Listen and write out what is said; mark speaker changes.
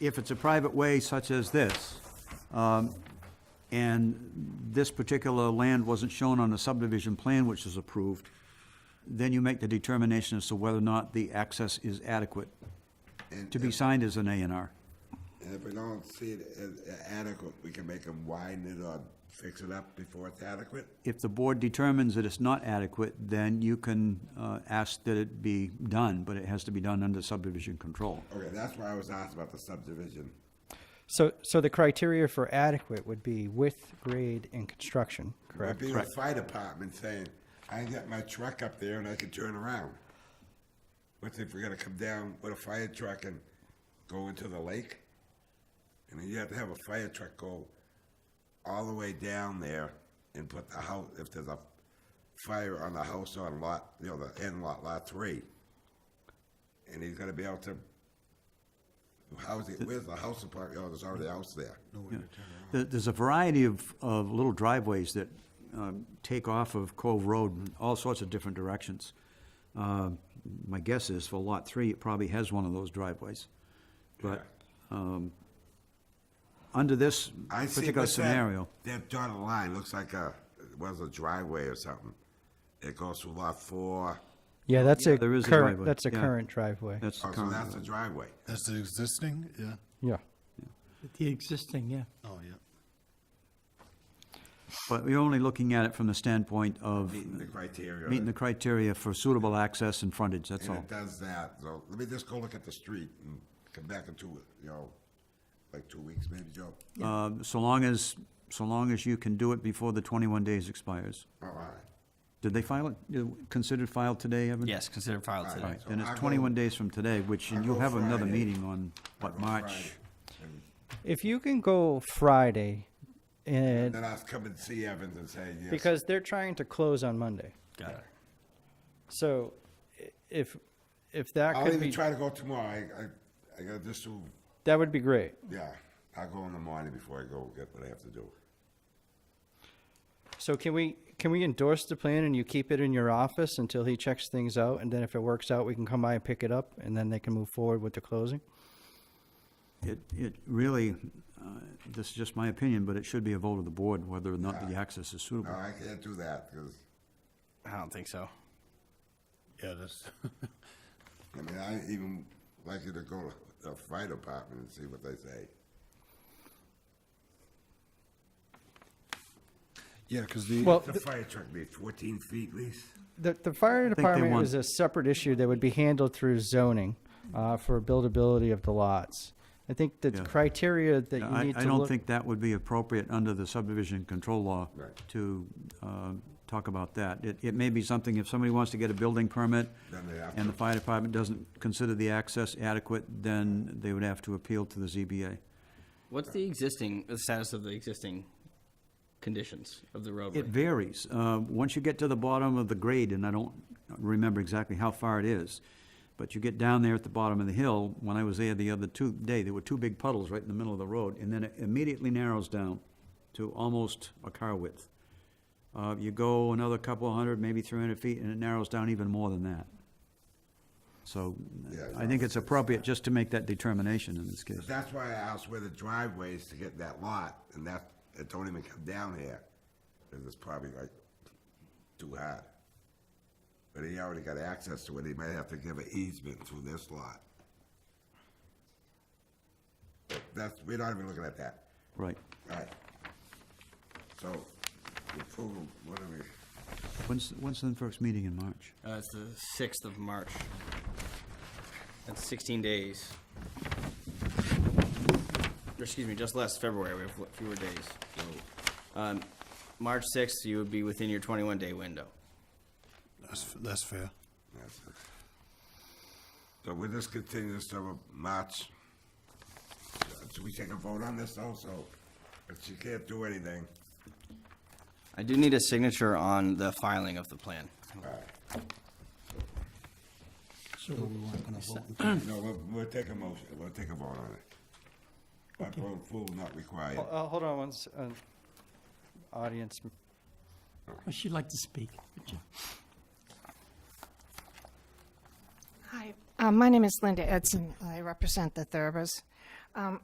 Speaker 1: if it's a private way such as this, um, and this particular land wasn't shown on the subdivision plan which is approved, then you make the determination as to whether or not the access is adequate
Speaker 2: And
Speaker 1: to be signed as an A and R.
Speaker 2: And if we don't see it as adequate, we can make them widen it or fix it up before it's adequate?
Speaker 1: If the board determines that it's not adequate, then you can uh, ask that it be done, but it has to be done under subdivision control.
Speaker 2: Okay, that's why I was asked about the subdivision.
Speaker 3: So, so the criteria for adequate would be width, grade, and construction,
Speaker 2: It'd
Speaker 3: correct?
Speaker 2: be the fire department saying, I got my truck up there and I can turn around. What if we're gonna come down with a fire truck and go into the lake? And then you have to have a fire truck go all the way down there and put the house, if there's a fire on the house on lot, you know, the end lot, lot three. And he's gonna be able to, how's he, where's the house apart, oh, there's already a house there.
Speaker 1: There- There's a variety of, of little driveways that um, take off of Cove Road in all sorts of different directions. Uh, My guess is for Lot 3, it probably has one of those driveways. But um, under this
Speaker 2: I see
Speaker 1: particular
Speaker 2: what's that-
Speaker 1: scenario,
Speaker 2: That dotted line looks like a, was a driveway or something. It goes through lot four.
Speaker 3: Yeah, that's a
Speaker 1: there is a
Speaker 3: current,
Speaker 1: driveway,
Speaker 3: that's a
Speaker 1: yeah.
Speaker 3: current driveway.
Speaker 1: that's the
Speaker 2: Oh, so
Speaker 1: current
Speaker 2: that's a driveway.
Speaker 4: That's the existing, yeah,
Speaker 3: Yeah.
Speaker 5: The existing, yeah.
Speaker 4: oh, yeah.
Speaker 1: But we're only looking at it from the standpoint of
Speaker 2: Meeting the criteria.
Speaker 1: meeting the criteria for suitable access and frontage, that's
Speaker 2: And
Speaker 1: all.
Speaker 2: it does that. So let me just go look at the street and come back in two, you know, like two weeks maybe, Joe.
Speaker 1: Uh, So long as, so long as you can do it before the 21 days expires.
Speaker 2: All right.
Speaker 1: Did they file it, you considered filed today, Evan?
Speaker 6: Yes, considered filed
Speaker 2: All
Speaker 6: today.
Speaker 1: All right,
Speaker 2: So
Speaker 1: then it's
Speaker 2: I go-
Speaker 1: 21 days from today, which, and
Speaker 2: I
Speaker 1: you'll
Speaker 2: go
Speaker 1: have another
Speaker 2: Friday.
Speaker 1: meeting on, what,
Speaker 2: On
Speaker 1: March?
Speaker 2: Friday. And
Speaker 3: If you can go Friday, and,
Speaker 2: Then I'll come and see Evans and say, yes.
Speaker 3: because they're trying to close on Monday.
Speaker 6: Got it.
Speaker 3: So i- if, if that
Speaker 2: I'll
Speaker 3: could
Speaker 2: even
Speaker 3: be,
Speaker 2: try to go tomorrow. I, I, I gotta just do,
Speaker 3: that would be great.
Speaker 2: yeah, I'll go in the morning before I go get what I have to do.
Speaker 3: So can we, can we endorse the plan and you keep it in your office until he checks things out? And then if it works out, we can come by and pick it up and then they can move forward with the closing?
Speaker 1: It, it really, uh, this is just my opinion, but it should be a vote of the board whether or not the access is
Speaker 2: No,
Speaker 1: suitable.
Speaker 2: I can't do that because,
Speaker 6: I don't think so.
Speaker 4: Yeah, that's,
Speaker 2: I mean, I even like you to go to the fire department and see what they say.
Speaker 4: yeah, because the,
Speaker 3: Well,
Speaker 2: The fire truck needs fourteen feet least.
Speaker 3: The, the fire
Speaker 1: they
Speaker 3: department
Speaker 1: want-
Speaker 3: is a separate issue that would be handled through zoning, uh, for buildability of the lots. I think the
Speaker 1: Yeah.
Speaker 3: criteria that you
Speaker 1: I,
Speaker 3: need
Speaker 1: I
Speaker 3: to
Speaker 1: don't
Speaker 3: look,
Speaker 1: think that would be appropriate under the subdivision control law
Speaker 2: Right.
Speaker 1: to uh, talk about that. It, it may be something, if somebody wants to get a building permit
Speaker 2: Then they have
Speaker 1: and the
Speaker 2: to.
Speaker 1: fire department doesn't consider the access adequate, then they would have to appeal to the ZBA.
Speaker 6: What's the existing, the status of the existing conditions of the roadway?
Speaker 1: It varies. Uh, Once you get to the bottom of the grade, and I don't remember exactly how far it is, but you get down there at the bottom of the hill, when I was there the other two, day, there were two big puddles right in the middle of the road, and then it immediately narrows down to almost a car width. Uh, You go another couple of hundred, maybe three hundred feet, and it narrows down even more than that. So uh,
Speaker 2: Yeah,
Speaker 1: I think it's appropriate just to make that determination in this case.
Speaker 2: But that's why I asked where the driveway is to get that lot, and that, it don't even come down here. 'cause it's probably like too hard. But he already got access to it, he might have to give an easement through this lot. But That's, we're not even looking at that.
Speaker 1: Right.
Speaker 2: All right. So, approval, what are we?
Speaker 1: When's, when's the first meeting in March?
Speaker 6: Uh, it's the sixth of March. That's sixteen days. Or excuse me, just last February, we have fl- fewer days. So, Um, March sixth, you would be within your twenty-one day window.
Speaker 4: that's, that's fair.
Speaker 2: That's it. So we just continue this till March. Should we take a vote on this also? But she can't do anything.
Speaker 6: I do need a signature on the filing of the plan.
Speaker 4: So we weren't gonna vote.
Speaker 2: No, we'll, we'll take a motion, we'll take a vote on it. But approval not required.
Speaker 3: Ho- uh, hold on one, s- uh, audience
Speaker 5: She'd like to speak.
Speaker 7: Hi, uh, my name is Linda Edson. I represent the Thurbers. Um,